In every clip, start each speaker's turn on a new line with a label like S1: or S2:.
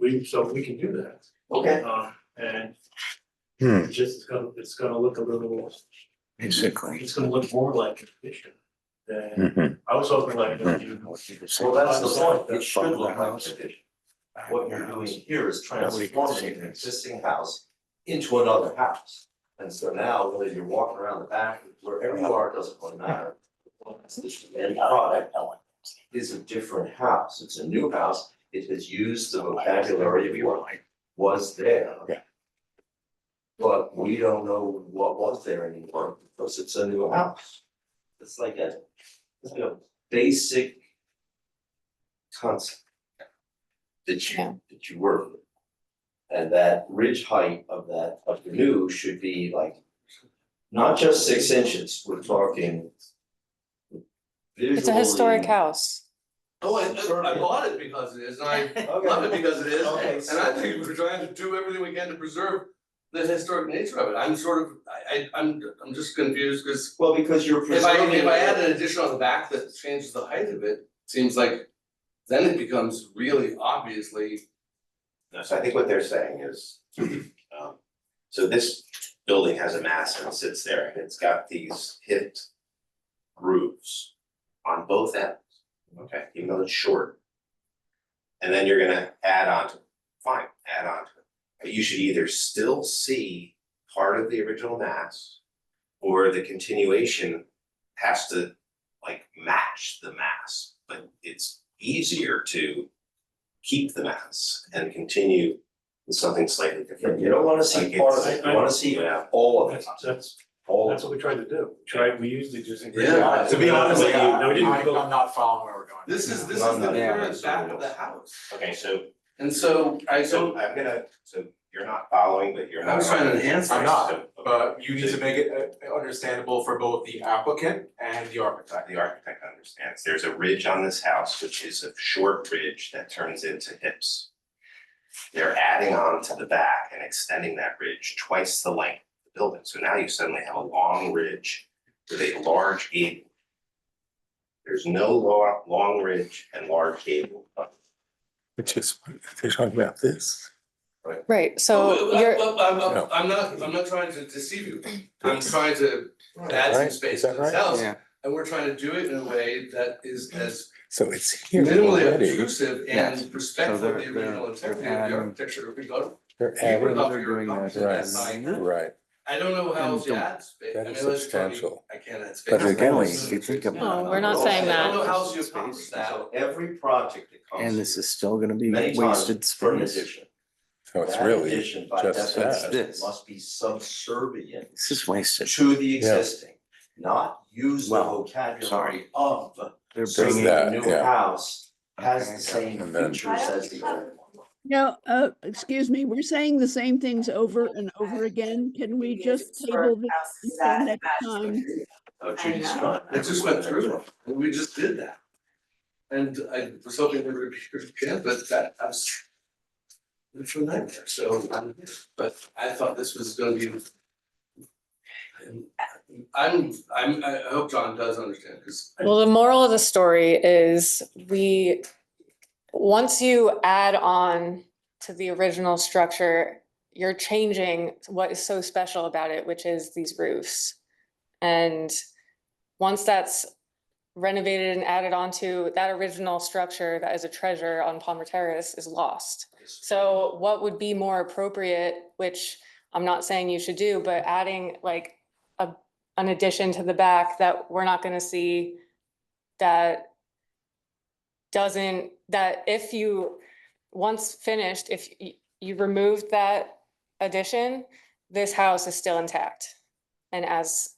S1: we, so we can do that.
S2: Okay.
S1: Uh, and
S3: Hmm,
S1: it's just, it's gonna, it's gonna look a little,
S3: basically.
S1: it's gonna look more like a petition than,
S3: Mhm.
S1: I was hoping like, you know,
S2: Well, that's the point, it should
S3: Follow the
S2: look like a
S3: house.
S2: petition. What you're doing here is
S3: Nobody can see
S2: transforming an
S3: this.
S2: existing house into another house. And so now, whether you're walking around the back, wherever you are, it doesn't really matter. The end product is a different house, it's a new house, it has used the vocabulary of what was there.
S3: Yeah.
S2: But we don't know what was there anymore, because it's a new house. It's like a, it's like a basic concept that
S4: Yeah.
S2: you, that you work with. And that ridge height of that, of the new should be like, not just six inches, we're talking
S4: It's a historic
S2: visually-
S4: house.
S5: Oh, I, I bought it because it is, and I love it
S2: Okay,
S5: because it
S2: Okay,
S5: is, and I
S2: so-
S5: think we're trying to do everything we can to preserve the historic nature of it, I'm sort of, I, I, I'm, I'm just confused, cause
S2: well, because you're
S5: if I,
S2: preserving.
S5: if I
S2: it.
S5: add an addition on the back that changes the height of it, seems like then it becomes really obviously,
S6: No, so I think what they're saying is, um, so this building has a mass and sits there, and it's got these hip grooves on both ends, okay, even though it's short. And then you're gonna add on to, it. fine, add on to it, but you should either still see part of the original mass or the continuation has to like match the mass, but it's easier to keep the mass and continue with something slightly different.
S2: You don't wanna see
S6: Like
S2: part of
S6: it's-
S2: it, you wanna see
S6: Yeah.
S3: Hmm.
S2: all of it,
S1: that's, that's,
S2: all of
S1: that's what we tried to do. We Tried, we used the existing.
S5: Yeah.
S1: To be honest with you, no, we
S7: I-
S1: didn't go,
S7: I'm not following where we're going.
S5: this is, this
S2: No,
S5: is the
S2: no,
S3: yeah,
S5: current
S6: that's
S5: back of
S6: what
S5: the
S6: it is.
S5: house.
S6: Okay, so
S5: And so I
S6: so
S5: don't,
S6: I'm gonna, so you're not following, but you're
S5: I
S6: not.
S5: was trying to enhance
S7: I'm
S5: it.
S7: not,
S6: So, okay,
S7: But you need to make it uh, understandable for both the applicant and the architect.
S6: The architect understands, there's a ridge on this house, which is a short ridge that turns into hips. They're adding on to the back and extending that ridge twice the length of the building, so now you suddenly have a long ridge with a large gable. There's no lo- long ridge and large gable, but
S3: Which is, they're talking about this.
S4: Right,
S5: Oh,
S4: so
S5: I-
S4: you're,
S5: I- I'm,
S3: No.
S5: I'm, I'm not, I'm not trying to deceive you, I'm trying to add some
S3: Right?
S5: space
S3: Is
S5: to
S3: that
S5: this
S3: right?
S5: house,
S3: Yeah.
S5: and we're trying to do it in a way that is as
S3: So it's Mm-hmm. here
S5: minimally
S3: already.
S5: obtrusive
S8: Yes.
S5: and respectful of
S8: they're-
S3: uh,
S5: the original
S8: they're-
S5: integrity
S8: they're
S5: of the
S8: adding-
S5: architecture we go to.
S3: They're
S5: You would
S3: adding,
S5: love
S8: they're
S5: your
S8: doing that
S5: adoption
S3: right,
S5: design.
S3: right,
S5: I don't know how
S8: And
S5: else to
S8: don't-
S5: add space, I
S3: that
S5: mean,
S3: is
S5: let's tell you,
S3: substantial.
S5: I can't add space.
S3: But again,
S5: I
S3: we-
S5: don't know.
S8: you think about-
S4: No, we're not saying
S5: I don't know
S4: that.
S5: how else you
S2: Space.
S5: accomplish that.
S2: So every project that comes.
S8: And this is still gonna be
S2: Many times
S8: wasted
S2: for an
S8: space.
S2: addition.
S3: so Oh, it's
S2: That
S3: really,
S2: addition by
S3: just
S2: definition
S8: that.
S2: Must be subservient
S8: This is wasted.
S2: to the
S3: Yeah.
S2: existing, not use the
S8: Well,
S2: vocabulary
S8: sorry.
S2: of.
S8: They're
S2: So
S3: bringing-
S2: the
S3: that,
S2: new
S3: yeah.
S2: house has the
S8: Okay.
S2: same
S3: And then-
S2: features as the old one.
S9: No, uh, excuse me, we're saying the same things over and over again. Can we just table this until next time?
S2: Oh, Judy's
S4: know.
S2: not.
S5: I just went through it, and we just did that. And I was hoping there would be, yeah, but that, I was. It's a nightmare, so, um, but I thought this was gonna be. I'm, I'm, I I hope John does understand, cause. I-
S4: well, the moral of the story is we, once you add on to the original structure, you're changing what is so special about it, which is these roofs. And once that's renovated and added onto, that original structure that is a treasure on Palmer Terrace is lost. So what would be more appropriate, which I'm not saying you should do, but adding like a, an addition to the back that we're not gonna see that doesn't, that if you, once finished, if you, you removed that addition, this house is still intact. And as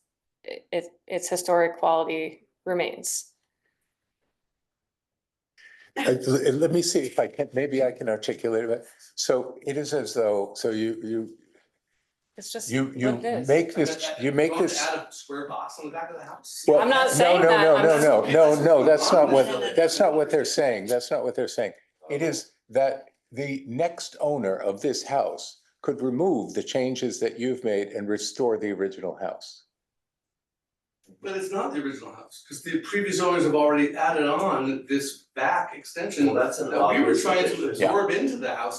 S4: i- it, its historic quality remains.
S3: I- let me see if I can, maybe I can articulate it. So it is as though, so you, you,
S4: It's just
S3: you, you
S4: like this.
S3: make
S5: I- I-
S3: this, you make
S5: want to
S3: this.
S5: Add a square box on the back of the house.
S3: Well,
S4: I'm not saying that,
S3: No,
S4: I'm
S3: no,
S4: just-
S3: no, no, no, no, that's not
S5: No.
S3: what, that's not what they're saying. That's not what they're saying. It is that the next owner of this house could remove the changes that you've made and restore the original house.
S5: But it's not the original house, cause the previous owners have already added on this back extension
S2: Well, that's an
S5: that we were
S2: obvious
S5: trying to
S2: addition.
S3: Yeah.
S5: absorb into the house